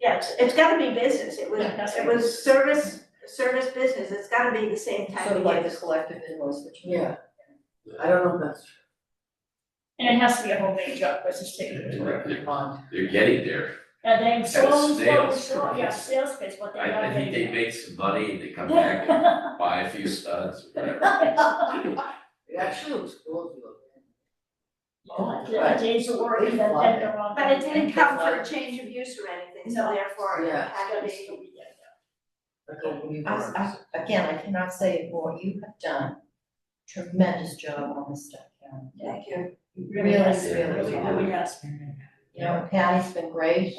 Yeah, it's, it's gotta be business, it was, Yeah, that's it was service, service business, it's gotta be the same type sort of of like the use. collective invoice, which. Yeah. I don't know if that's true. And it has to be a homemade job, which is taken to work. Bond. They're getting there. And then slow, slow, snail's slow, yeah, pace. sales pitch, what they I, gotta I think they do. make some money and they come back and buy a few studs or whatever. It actually looks cool if you look at it. Yeah, change the word, and then Right. they're on. But it didn't come for a change of use or anything, so No. therefore it Yeah. had to be. Okay, we I, were- I, again, I cannot say it more, you have done tremendous job on this stuff, Karen. Thank you. Really, really, Really, really, yes. You know, Patty's been great,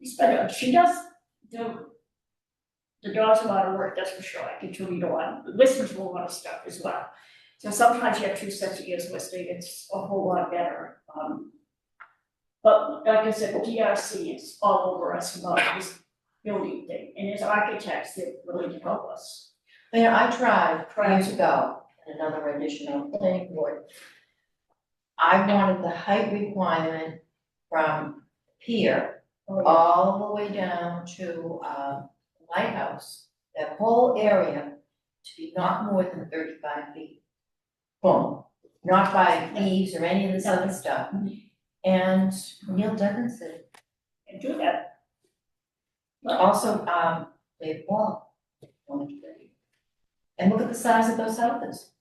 It's better, she does do. The dog's a lot of work, that's for sure, I can tell you the one, listen to a lot of stuff as well. So sometimes you have two sets of ears listening, it's a whole lot better, um. But like I said, DRC is all over us about this building thing, and as architects, they're willing to help us. you know, I tried years ago, in another rendition on the planning board. I wanted the height requirement from pier all the way down to uh, Lighthouse, that whole area to be not more than thirty-five feet. Boom, not by leaves or any of this other stuff. And Neil Dugganson, And do that, also um, Dave Wall. wanted to do it. And look at the size of those houses.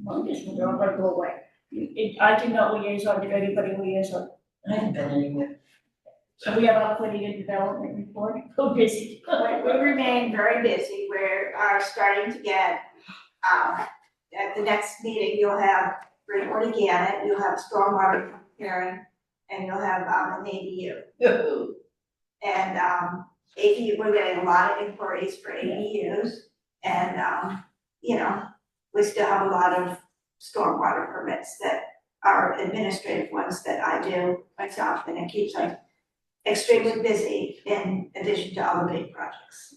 monkeys, they're all gonna go away. It, I did not liaison, did anybody liaison? I haven't been anywhere. So we have our planning and development report, so busy. We, we remain very busy, we are starting to get, um, at the next meeting, you'll have Greenwood Gannett, you'll have stormwater hearing, and you'll have, um, an ADU. And um AD, we're getting a lot of inquiries for ADUs and um, you know, we still have a lot of stormwater permits that are administrative ones that I do myself and it keeps us extremely busy in addition to all the big projects.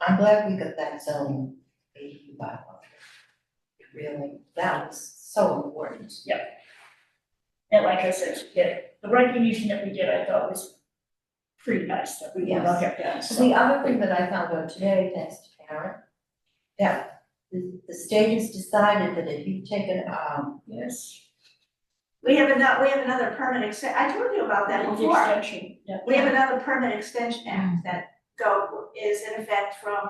I'm glad we got that zoning AU bylaw. Really, that was so important. And like I said, yeah, the recognition that we did, I thought was pretty nice that we did not have that, So so. The other thing that I found out today, thanks to Karen, that the, the state has decided that if you take an, um, Yes. We have another, we have another permit exten, I told you about that The before. extension, yeah. We have another permit extension act that go, is in effect from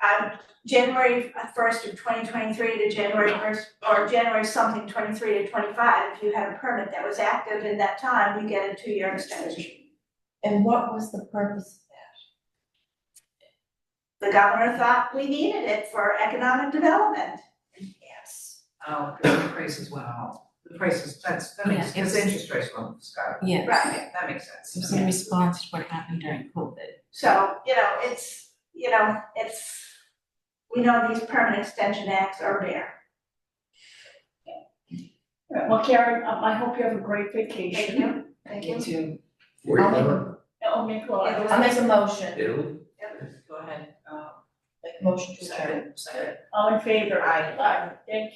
um, January first of twenty twenty-three to January first, or January something twenty-three to twenty-five, if you had a permit that was active in that time, you get a two-year extension. and what was the purpose of The governor thought we needed it for economic development. that? Yes. Oh, because the prices went up. The prices, that's, that makes, because interest rates went up, Scott. Yes. Right. That makes sense. It was in response to what happened during COVID. So, you know, it's, you know, it's, we know these permit extension acts are rare. All right, Well, Karen, um, I hope you have a great Thank vacation. you, thank you. Where you I'll make going? Oh, make a lot. I'll make a motion, Italy? Go ahead, um, make a motion to adjourn. second, second. All in favor? Aye. Aye. Thank